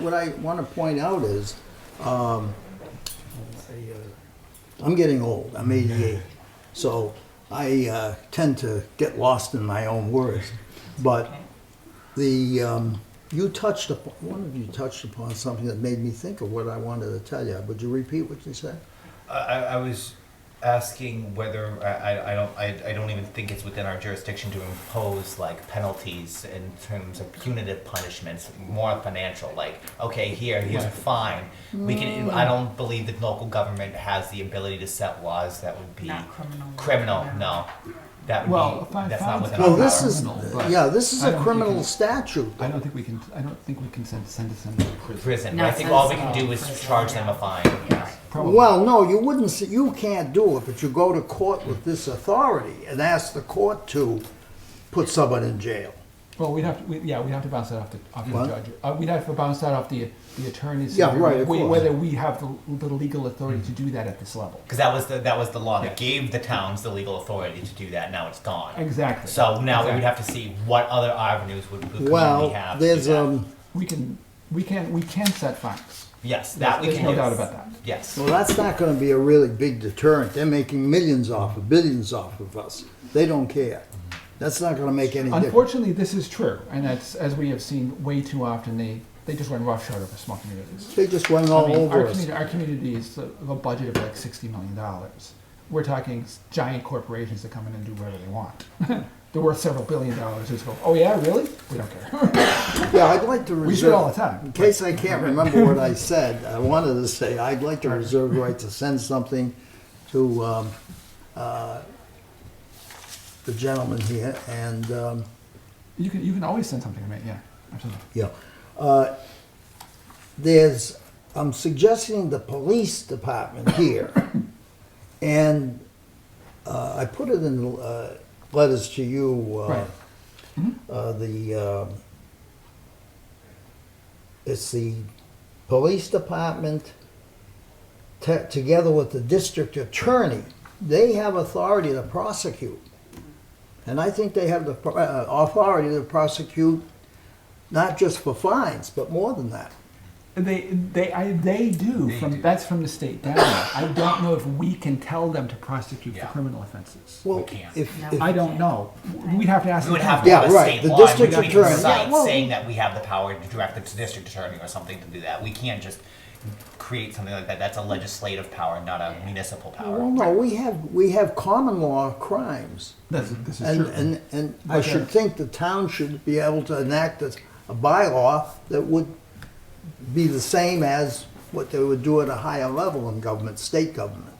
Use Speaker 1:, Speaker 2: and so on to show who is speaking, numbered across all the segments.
Speaker 1: What I want to point out is, um, I'm getting old, I'm 88, so I uh, tend to get lost in my own words. But the, um, you touched upon, one of you touched upon something that made me think of what I wanted to tell you. Would you repeat what you said?
Speaker 2: I, I I was asking whether I, I- I don't I, I don't even think it's within our jurisdiction to impose like penalties in terms of punitive punishments, more financial. Like okay, here here's a fine. We
Speaker 3: Mm.
Speaker 2: can. I don't believe that local government has the ability to set laws that would be
Speaker 3: Not criminal.
Speaker 2: Criminal, no. That would
Speaker 4: Well,
Speaker 2: be
Speaker 4: if I
Speaker 2: that's
Speaker 4: found
Speaker 2: not within
Speaker 4: it-
Speaker 1: Well,
Speaker 2: our
Speaker 1: Oh, this
Speaker 2: power.
Speaker 1: is,
Speaker 4: Criminal, but
Speaker 1: yeah, this is
Speaker 4: I
Speaker 1: a
Speaker 4: don't
Speaker 1: criminal
Speaker 4: think it-
Speaker 1: statute.
Speaker 4: I don't think we can, I don't think we can send, send us into prison.
Speaker 2: prison.
Speaker 3: No,
Speaker 2: I think all we
Speaker 3: it's-
Speaker 2: can do is
Speaker 3: prison,
Speaker 2: charge
Speaker 3: yeah.
Speaker 2: them a fine.
Speaker 3: Yeah.
Speaker 4: Probably.
Speaker 1: Well, no, you wouldn't, s- you can't do it, but you go to court with this authority and ask the court to put someone in jail.
Speaker 4: Well, we'd have to, we- yeah, we'd have to bounce that off the, off the
Speaker 1: What?
Speaker 4: judge. Uh, We'd have to bounce that off the, the attorneys.
Speaker 1: Yeah, right, of
Speaker 4: whe-
Speaker 1: course.
Speaker 4: Whether we have the, the legal authority
Speaker 2: Mm-hmm.
Speaker 4: to do that at this level.
Speaker 2: Because that was the that was the law that gave the towns the legal authority to do that. Now it's gone.
Speaker 4: Exactly.
Speaker 2: So now we would have to see what other avenues would would we
Speaker 1: Well,
Speaker 2: have. to do
Speaker 1: there's,
Speaker 2: that.
Speaker 1: um,
Speaker 4: We can, we can, we can set fines.
Speaker 2: yes, that we
Speaker 4: There's
Speaker 2: can
Speaker 4: no
Speaker 2: do.
Speaker 4: doubt about that.
Speaker 2: Yes.
Speaker 1: well, that's not gonna be a really big deterrent. They're making millions off of, billions off of us. They don't care. That's not gonna make any difference.
Speaker 4: Unfortunately, this is true, and that's, as we have seen way too often, they, they just run roughshod over small communities.
Speaker 1: They just went
Speaker 4: I
Speaker 1: all
Speaker 4: mean, our
Speaker 1: over us.
Speaker 4: community, our community is a, a budget of like sixty million dollars. We're talking s- giant corporations that come in and do whatever they want. They're worth several billion dollars. Just go, oh yeah, really? We don't care.
Speaker 1: Yeah, I'd like to reserve.
Speaker 4: We do it all the time.
Speaker 1: In case I can't remember what I said, I wanted to say, I'd like to reserve the right to send something to um, uh, the gentleman here, and, um,
Speaker 4: You can, you can always send something to me, yeah, absolutely.
Speaker 1: yeah. Uh, There's, I'm suggesting the police department here, and uh, I put it in uh, letters to you, uh,
Speaker 4: Right.
Speaker 1: uh, the, um, it's the police department te- together with the district attorney. They have authority to prosecute. And I think they have the pro- uh, authority to prosecute not just for fines, but more than that.
Speaker 4: They, they, I, they do, from, that's from the state down. I don't know if we can tell them to prosecute for
Speaker 2: Yeah.
Speaker 4: criminal offenses.
Speaker 1: Well,
Speaker 2: can't.
Speaker 1: if-
Speaker 3: No.
Speaker 1: if-
Speaker 4: I don't know. We'd have to ask.
Speaker 2: We would
Speaker 4: the
Speaker 2: have
Speaker 4: town.
Speaker 2: to
Speaker 1: Yeah,
Speaker 2: have a
Speaker 1: right.
Speaker 2: state
Speaker 1: The
Speaker 2: law and
Speaker 1: district
Speaker 2: we couldn't
Speaker 1: attorney.
Speaker 2: decide
Speaker 1: Yeah, well-
Speaker 2: saying that we have the power to direct the district attorney or something to do that. We can't just create something like that. That's a legislative power, not a municipal power.
Speaker 1: Well, no, we have, we have common law crimes.
Speaker 4: That's, this is
Speaker 1: And,
Speaker 4: true.
Speaker 1: and, and I
Speaker 4: Okay.
Speaker 1: should think the town should be able to enact a, a bylaw that would be the same as what they would do at a higher level in government, state government.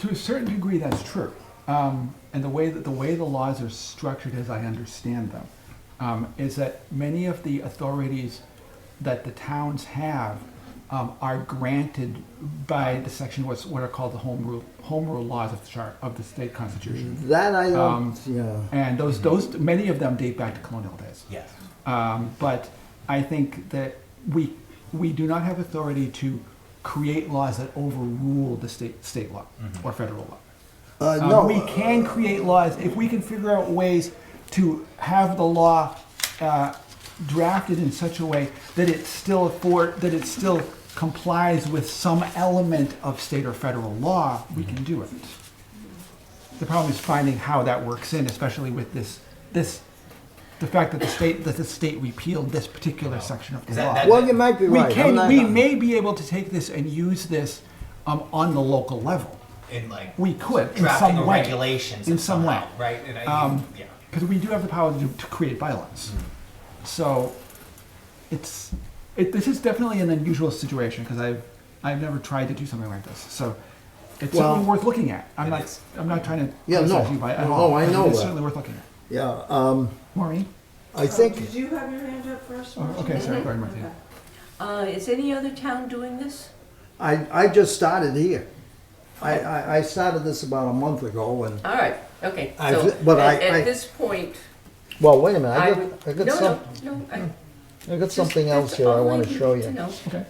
Speaker 4: To a certain degree, that's true. Um, and the way that the way the laws are structured, as I understand them, um, is that many of the authorities that the towns have um, are granted by the section what's what are called the home rule home rule laws of the chart of the state constitution.
Speaker 1: That I don't,
Speaker 4: Um,
Speaker 1: yeah.
Speaker 4: And those those many of them date back to colonial days.
Speaker 2: Yes.
Speaker 4: Um, but I think that we we do not have authority to create laws that overrule the state state law or federal law.
Speaker 1: Uh,
Speaker 4: Um,
Speaker 1: no,
Speaker 4: we can create laws if we can figure out ways to have the law uh, drafted in such a way that it still afford that it still complies with some element of state or federal law. We can do it. The problem is finding how that works in, especially with this this the fact that the state that the state repealed this particular section of the
Speaker 2: Is that-
Speaker 4: law
Speaker 2: that-
Speaker 1: well, you might be
Speaker 4: we
Speaker 1: right. I'm
Speaker 4: can
Speaker 1: not-
Speaker 4: we may be able to take this and use this um, on the local level
Speaker 2: In like
Speaker 4: we could in
Speaker 2: drafting
Speaker 4: some
Speaker 2: or
Speaker 4: way
Speaker 2: regulations
Speaker 4: in
Speaker 2: of
Speaker 4: some
Speaker 2: somehow,
Speaker 4: way
Speaker 2: right? And I
Speaker 4: Um,
Speaker 2: yeah. Mm-hmm.
Speaker 4: because we do have the power to, to create bylaws so it's it, this is definitely an unusual situation because I've I've never tried to do something like this so it's
Speaker 1: Well,
Speaker 4: certainly worth looking at I'm
Speaker 2: it
Speaker 4: not
Speaker 2: is.
Speaker 4: I'm not trying to
Speaker 1: Yeah, no.
Speaker 4: criticize you by, at
Speaker 1: No,
Speaker 4: all
Speaker 1: no, I
Speaker 4: but
Speaker 1: know
Speaker 4: it's
Speaker 1: that.
Speaker 4: certainly worth looking at
Speaker 1: Yeah, um,
Speaker 4: Maureen
Speaker 1: I
Speaker 5: Oh,
Speaker 1: think,
Speaker 5: Did you have your hand up first?
Speaker 4: Oh,
Speaker 5: Marcia?
Speaker 4: okay sorry go ahead Martina.
Speaker 5: Okay. Uh, is any other town doing this?
Speaker 1: I, I just started here. I, I, I started this about a month ago and,
Speaker 5: All right, okay,
Speaker 1: I
Speaker 5: so
Speaker 1: thi- but I-
Speaker 5: at,
Speaker 1: I-
Speaker 5: at this point,
Speaker 1: well, wait a minute,
Speaker 5: I
Speaker 1: I
Speaker 5: would.
Speaker 1: got, I got
Speaker 5: no,
Speaker 1: some,
Speaker 5: No, no, I.
Speaker 1: I got
Speaker 5: just-
Speaker 1: something
Speaker 5: that's
Speaker 1: else here I
Speaker 5: all
Speaker 1: wanna
Speaker 5: needed
Speaker 1: show you.
Speaker 5: know.
Speaker 4: okay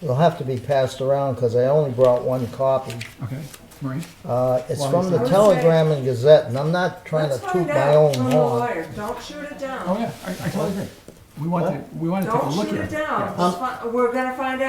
Speaker 1: It'll have to be passed around because I only brought one copy.
Speaker 4: okay Maureen
Speaker 1: Uh, it's
Speaker 4: Why
Speaker 1: from
Speaker 4: is
Speaker 1: the
Speaker 4: that?
Speaker 5: Okay.
Speaker 1: Telegram and Gazette, and I'm not trying
Speaker 5: Let's
Speaker 1: to toot
Speaker 5: find
Speaker 1: my
Speaker 5: out Oh,
Speaker 1: own
Speaker 5: from the
Speaker 1: horn.
Speaker 5: lawyer, don't shoot it down.
Speaker 4: oh yeah I, I totally agree We want to, we want to Oh, take a
Speaker 5: Don't
Speaker 4: look at it.
Speaker 5: shoot it
Speaker 4: Yeah.
Speaker 5: down. Let's fi- We're gonna find out.